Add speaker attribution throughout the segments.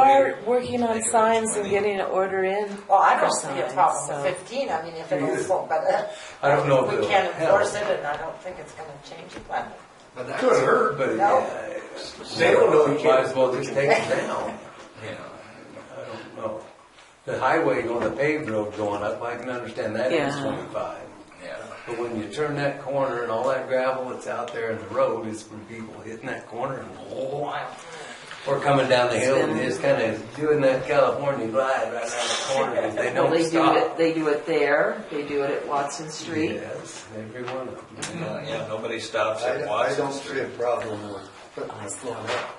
Speaker 1: we're working on signs and getting an order in.
Speaker 2: Well, I
Speaker 1: for
Speaker 2: don't see a
Speaker 1: signs,
Speaker 2: problem
Speaker 1: so-
Speaker 2: with fifteen, I mean, if it'll, but uh,
Speaker 3: I don't know if
Speaker 2: we
Speaker 3: it'll
Speaker 2: can't
Speaker 3: help.
Speaker 2: enforce it, and I don't think it's gonna change the climate.
Speaker 4: But that
Speaker 3: Could hurt, but
Speaker 2: No.
Speaker 3: yeah, they don't know, you might as well just take it down. Yeah, I don't know. The highway going, the paved road going up, I can understand that is
Speaker 1: Yeah.
Speaker 3: twenty-five.
Speaker 5: Yeah.
Speaker 3: But when you turn that corner and all that gravel that's out there in the road is from people hitting that corner and whoa, or coming down the hill and just kind of doing that California glide right down the corner because they
Speaker 1: Well,
Speaker 3: don't
Speaker 1: They do it,
Speaker 3: stop.
Speaker 1: they do it there, they do it at Watson Street.
Speaker 3: Yes, every one of them.
Speaker 5: Yeah, yeah, nobody stops
Speaker 4: I
Speaker 5: and
Speaker 4: don't, I
Speaker 5: watches.
Speaker 4: don't see a problem with putting the floor up.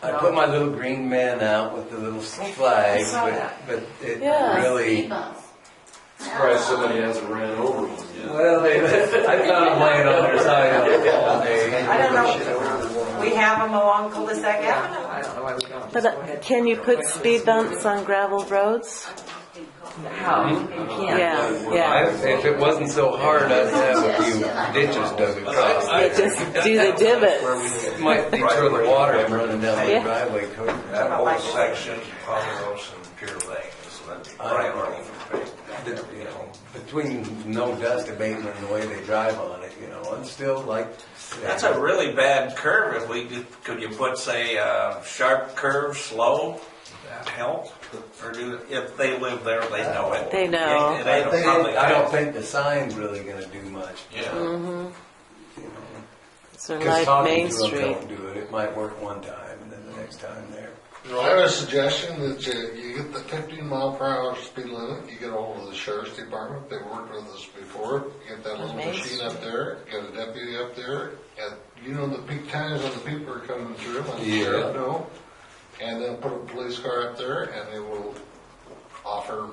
Speaker 3: I put my little green man out with the little flags,
Speaker 1: saw
Speaker 3: but,
Speaker 1: that.
Speaker 3: but it
Speaker 1: Yeah.
Speaker 3: really,
Speaker 6: Surprised somebody hasn't ran over one yet.
Speaker 3: well, they, I found them laying on their side all day.
Speaker 2: I don't know.
Speaker 4: Shit over the wall.
Speaker 2: We have them along Cul-de-sac
Speaker 1: Yeah,
Speaker 2: Avenue.
Speaker 1: I don't know why we don't.
Speaker 7: But
Speaker 1: Just go
Speaker 7: uh,
Speaker 1: ahead.
Speaker 7: can you put speed bumps on gravel roads?
Speaker 1: How? You can't.
Speaker 7: Yeah,
Speaker 3: I,
Speaker 7: yeah.
Speaker 3: if it wasn't so hard, I'd have a few ditches dug across.
Speaker 5: I- I-
Speaker 7: Just do the divots.
Speaker 3: It might deter the water Uh, from running down the
Speaker 7: Yeah.
Speaker 3: driveway toward
Speaker 5: That whole section, Pomeroy's and Pier Lane, is that priority for me.
Speaker 3: the, you know, between no dust abatement and the way they drive on it, you know, I'm still like.
Speaker 5: That's a really bad curve, if we, did- could you put, say, uh, sharp curve, slow, that help? Or do, if they live there, they know it.
Speaker 7: They know.
Speaker 5: It ain't a public
Speaker 3: I don't
Speaker 5: house.
Speaker 3: think the sign's really gonna do much.
Speaker 5: Yeah,
Speaker 7: Sort of
Speaker 3: Because
Speaker 7: Mm-hmm. like
Speaker 3: talking
Speaker 7: Main
Speaker 3: to them
Speaker 7: Street.
Speaker 3: don't do it. It might work one time, and then the next time there.
Speaker 4: Well, I have a suggestion that you, you get the fifteen mile per hour speed limit, you get hold of the sheriff's department, they worked with us before, get that little
Speaker 1: Amazing.
Speaker 4: machine up there, get a deputy up there, and you know the peak times when the people are coming through, and the
Speaker 3: Yeah.
Speaker 4: sheriff know, and then put a police car up there, and they will offer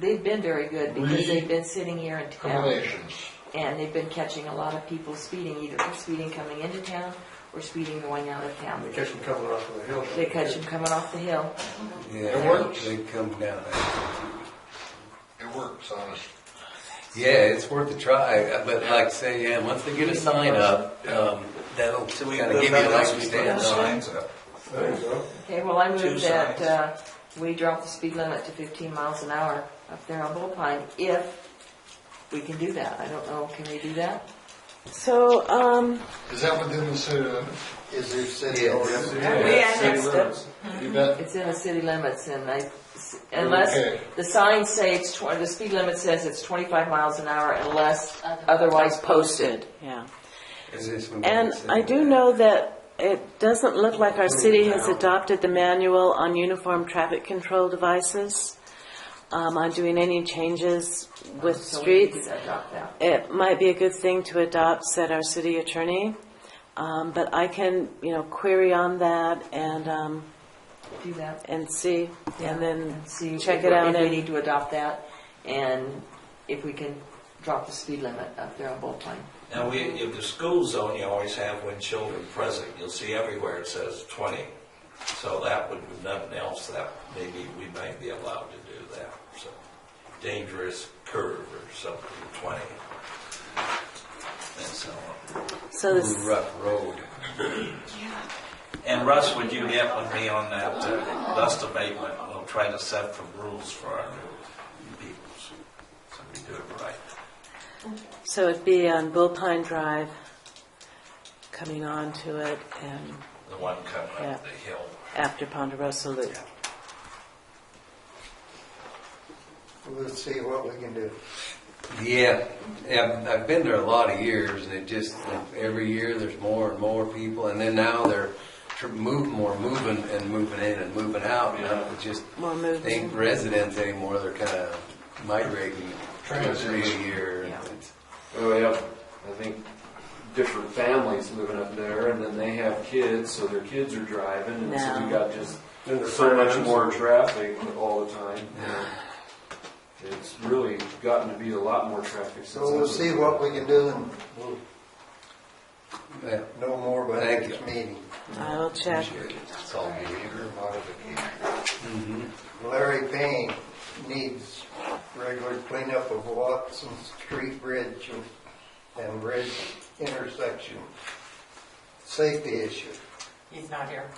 Speaker 1: They've been very good because
Speaker 4: We-
Speaker 1: they've been sitting here in town
Speaker 4: accommodations.
Speaker 1: and they've been catching a lot of people speeding, either speeding coming into town or speeding going out of town.
Speaker 4: catch them coming off of the hill.
Speaker 1: They catch them coming off the hill.
Speaker 3: Yeah,
Speaker 4: It works.
Speaker 3: They come down there.
Speaker 4: It works, honest.
Speaker 3: Yeah, it's worth a try, Uh, but like say, yeah, once they get a sign up, um, that'll
Speaker 5: so we
Speaker 3: kinda
Speaker 5: live
Speaker 3: give you
Speaker 5: that
Speaker 3: a
Speaker 5: way,
Speaker 3: leg
Speaker 5: we
Speaker 3: to
Speaker 5: put
Speaker 3: stand
Speaker 5: the
Speaker 3: on.
Speaker 5: signs up.
Speaker 1: Okay, well, I
Speaker 5: Two
Speaker 1: move that,
Speaker 5: sides.
Speaker 1: uh, we drop the speed limit to fifteen miles an hour up there on Bullpine, if we can do that. I don't know, can we do that?
Speaker 7: So, um,
Speaker 4: Is that within the city limits?
Speaker 8: Is there city
Speaker 3: Yes.
Speaker 2: We annexed it.
Speaker 4: You bet.
Speaker 1: It's in the city limits and I, unless,
Speaker 4: Okay.
Speaker 1: the sign says it's twen, the speed limit says it's twenty-five miles an hour unless otherwise posted.
Speaker 7: yeah.
Speaker 3: Is this when we
Speaker 7: And
Speaker 3: sit
Speaker 7: I do
Speaker 3: down?
Speaker 7: know that it doesn't look like our city has adopted the manual on uniform traffic control devices, um, on doing any changes with
Speaker 1: So we need to
Speaker 7: streets.
Speaker 1: adopt that.
Speaker 7: It might be a good thing to adopt, said our city attorney. Um, but I can, you know, query on that and, um,
Speaker 1: Do that.
Speaker 7: and see, and then
Speaker 1: And see
Speaker 7: check
Speaker 1: if
Speaker 7: it
Speaker 1: we-
Speaker 7: out
Speaker 1: If we
Speaker 7: and,
Speaker 1: need to adopt that and if we can drop the speed limit up there on Bullpine.
Speaker 5: Now, we, in the school zone, you always have when children present, you'll see everywhere it says twenty. So that would, with nothing else, that maybe we might be allowed to do that, so. Dangerous curve or something, twenty. And so on.
Speaker 7: so
Speaker 3: Mm-hmm.
Speaker 7: this,
Speaker 3: Rough road.
Speaker 5: And Russ, would you get with me on that uh, dust abatement? We'll try to set some rules for our new peoples, so we do it right.
Speaker 7: so it'd be on Bullpine Drive, coming on to it and
Speaker 5: The one coming up the hill.
Speaker 7: after Ponderosa Loop.
Speaker 8: We'll see what we can do.
Speaker 3: Yeah, yeah, I've- I've been there a lot of years, and it just every year there's more and more people, and then now they're tr- move more moving and moving in and moving out. You know, it just
Speaker 7: More movement.
Speaker 3: they ain't residents anymore. They're kind of migrating two or three a year. and
Speaker 1: Yeah.
Speaker 3: it's-
Speaker 6: Oh, we have, I think, different families living up there, and then they have kids, so their kids are driving, and so
Speaker 7: No.
Speaker 6: we got just so much more traffic all the time. you know. It's really gotten to be a lot more traffic since.
Speaker 8: So we'll
Speaker 6: I've-
Speaker 8: see what we can do and we'll
Speaker 3: Yeah,
Speaker 8: know more by
Speaker 3: Thank
Speaker 8: next
Speaker 3: you.
Speaker 8: meeting.
Speaker 7: I will check.
Speaker 3: appreciate it. It's all Mm-hmm. behavior.
Speaker 8: Modification. Larry Payne needs regular cleanup of Watson Street Bridge and bridge intersection. Safety issue.
Speaker 2: He's not here.